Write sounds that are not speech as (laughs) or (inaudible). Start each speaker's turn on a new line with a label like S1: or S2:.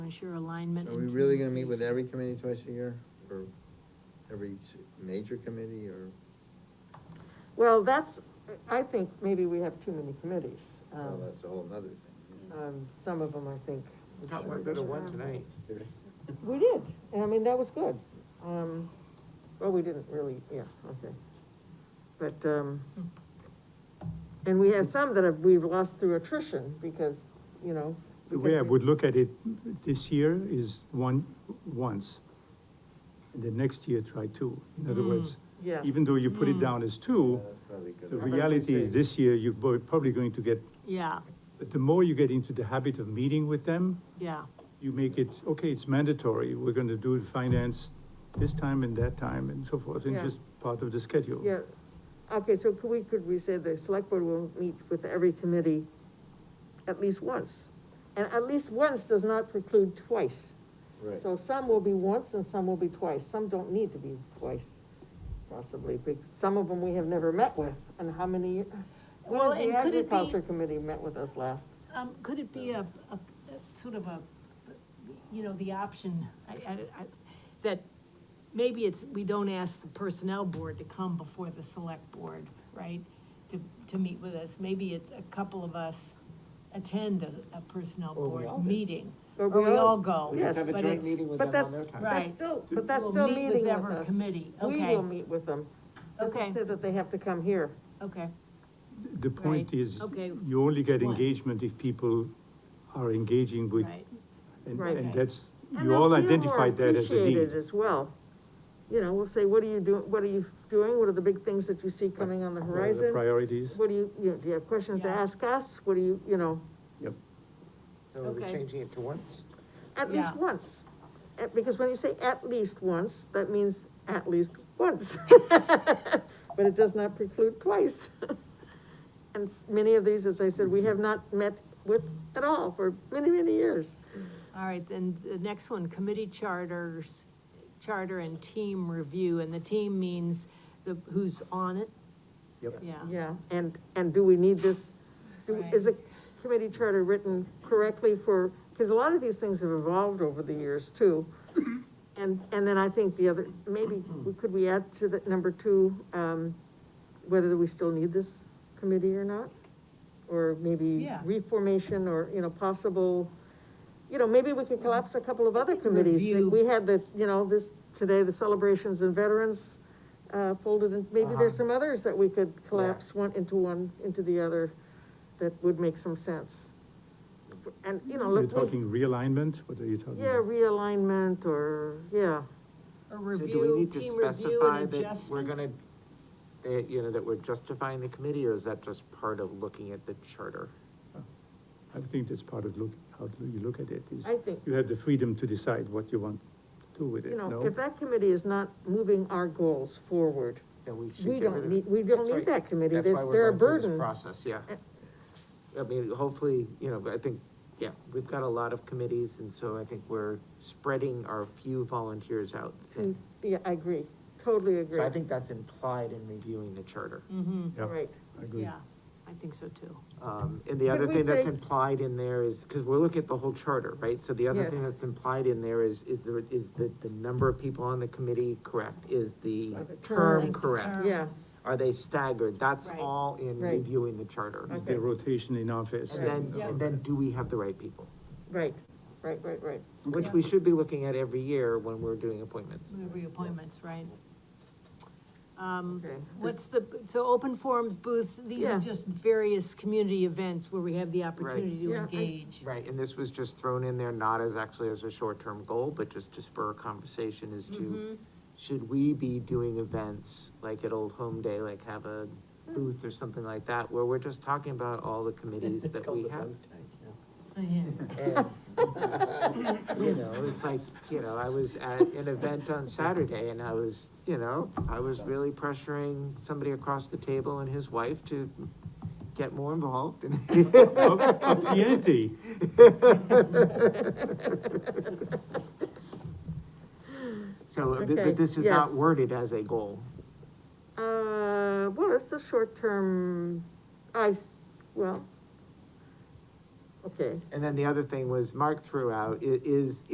S1: as your alignment.
S2: Are we
S1: and
S2: really gonna meet with every
S1: communication.
S2: committee twice a year, or every s- major committee, or?
S3: Well, that's, I think maybe we have too many committees.
S2: Well,
S3: Um,
S2: Oh, that's a whole nother thing.
S3: um, Some of them, I think.
S4: We got one good one tonight.
S3: We did, and I mean, that was good. Um, well, we didn't really, yeah, okay. But, um, and we have some that have, we've lost through attrition because, you know.
S5: The
S3: because
S5: way I
S3: we-
S5: would look at it this year is one, once. And then next year, try two. In other words,
S3: Yeah.
S5: even though you put it down as two,
S2: Yeah, that's probably good. How
S5: the
S2: about we
S5: reality is
S2: say-
S5: this year, you're bo- probably going to get,
S1: Yeah,
S5: but the more you get into the habit of meeting with them,
S1: yeah,
S5: you make it, okay, it's mandatory, we're gonna do finance this time and that time and so forth, and
S3: Yeah.
S5: just part of the schedule.
S3: Yeah, okay, so could we, could we say the select board will meet with every committee at least once? And at least once does not preclude twice.
S2: Right.
S3: So some will be once and some will be twice, some don't need to be twice, possibly, but some of them we have never met with, and how many? when
S1: Well,
S3: has the
S1: and could it be-
S3: Agriculture committee met with us last,
S1: um, could it be a, a, a- sort of a, you know, the option, I, I, I, that maybe it's, we don't ask the personnel board to come before the select board, right? To, to meet with us, maybe it's a couple of us attend a, a personnel
S4: Or we all
S1: board
S4: do.
S1: meeting,
S3: Or
S1: or
S3: we
S1: we
S3: all-
S1: all go.
S3: We just have a
S1: but
S4: joint
S1: it's-
S4: meeting with
S3: but
S4: them on
S3: that's-
S4: their time.
S1: Right.
S3: that's still, but that's
S1: We'll
S3: still
S1: meet with
S3: meeting with
S1: every
S3: us.
S1: committee,
S3: We
S1: okay.
S3: will meet with them. Doesn't
S1: Okay.
S3: Say that they have to come here,
S1: Okay,
S5: The point
S1: Right,
S5: is,
S1: okay,
S5: you only get
S1: once.
S5: engagement if people are engaging with,
S1: right,
S5: and,
S3: Right.
S5: and
S1: Okay.
S5: that's,
S3: And
S5: you
S3: they'll
S5: all
S3: feel more
S5: identified that as a need.
S3: Appreciated as well. You know, we'll say, what are you doing, what are you doing, what are the big things that you see coming on the
S5: What are The
S3: horizon?
S5: priorities,
S3: What do you, you know, do you have questions to
S1: Yeah.
S3: ask us, what do you, you know,
S5: yep.
S4: So are we
S1: Okay.
S4: changing it to once?
S3: at least
S1: Yeah.
S3: once. Uh, Because when you say at least once, that means at least once. (laughs) But it does not preclude twice. (laughs) And s- many of these, as I said, we have not met with at all for many, many years.
S1: all right, then the next one, committee charters, charter and team review, and the team means the, who's on it?
S5: Yep.
S1: Yeah.
S3: Yeah, and, and do we need this, do- is a
S1: Right.
S3: committee charter written correctly for, because a lot of these things have evolved over the years too.
S1: Mm-hmm.
S3: And, and then I think the other, maybe, we- could we add to that number two, um, whether we still need this committee or not? Or maybe
S1: Yeah.
S3: reformation or, you know, possible, you know, maybe we could collapse a couple of other committees.
S1: Review.
S3: Like, We had the, you know, this, today, the celebrations and veterans, uh, folded in, maybe there's
S4: Uh-huh.
S3: some others that we could collapse one into one, into the other, that would make some sense. And, you know,
S5: You're
S3: look, we-
S5: talking realignment, what are you talking
S3: yeah,
S5: about?
S3: realignment or, yeah,
S1: A
S4: So do we
S1: review,
S4: need to
S1: team review
S4: specify
S1: and
S4: that We're
S1: adjustment?
S4: gonna, that, you know, that we're justifying the committee, or is that just part of looking at the charter?
S5: I think that's part of look, how do you look at it, is
S3: I think-
S5: you have the freedom to decide what you want to do with it,
S3: you know,
S5: no?
S3: if that committee is not moving our goals forward,
S4: That we should
S3: we
S4: get rid
S3: don't
S4: of
S3: need,
S4: it?
S3: we don't
S4: That's
S3: need
S4: right.
S3: that committee,
S4: That's
S3: There's-
S4: why we're
S3: they're a
S4: going through this
S3: burden. Uh,
S4: Process, yeah. I mean, hopefully, you know, I think, yeah, we've got a lot of committees, and so I think we're spreading our few volunteers out. thin.
S3: Mm, Yeah, I agree, totally agree.
S4: So I think that's implied in reviewing the charter.
S1: Mm-hmm,
S5: Yeah,
S3: Right,
S5: I agree.
S1: yeah, I think so too.
S4: Um, and the
S3: Could
S4: other
S3: we
S4: thing that's
S3: say-
S4: implied in there is, because we're looking at the whole charter, right? So the other
S3: Yes.
S4: thing that's implied in there is, is there, is the, the number of people on the committee correct? Is the
S3: Are the
S4: term
S1: terms-
S4: correct?
S1: term.
S3: yeah,
S4: Are they staggered? That's
S1: Right.
S4: all in
S3: Right.
S4: reviewing the charter.
S5: Is
S3: Okay.
S5: there rotation in office?
S4: And then,
S1: Yeah.
S4: and then do we have the right people?
S3: right, right, right, right.
S4: Which we should be looking at every year when we're doing appointments.
S1: The Reappointments, right? Um,
S3: Okay.
S1: what's the, so open forums, booths, these
S3: Yeah.
S1: are just various community events where we have the opportunity to
S3: Yeah, I-
S1: engage.
S4: Right, and this was just thrown in there, not as actually as a short-term goal, but just to spur a conversation as to, should we be doing events like at Old Home Day, like have a booth or something like that, where we're just talking about all the committees that we have?
S1: Oh, Yeah.
S4: And, You know, it's like, you know, I was at an event on Saturday and I was, you know, I was really pressuring somebody across the table and his wife to get more involved (laughs) and
S5: Up up the ante.
S4: (laughs) So, uh, but,
S3: Okay,
S4: but this is not
S3: yes.
S4: worded as a goal.
S3: Uh, well, it's a short-term, I, s- well, okay, okay.
S4: And then the other thing was Mark threw out, i- is,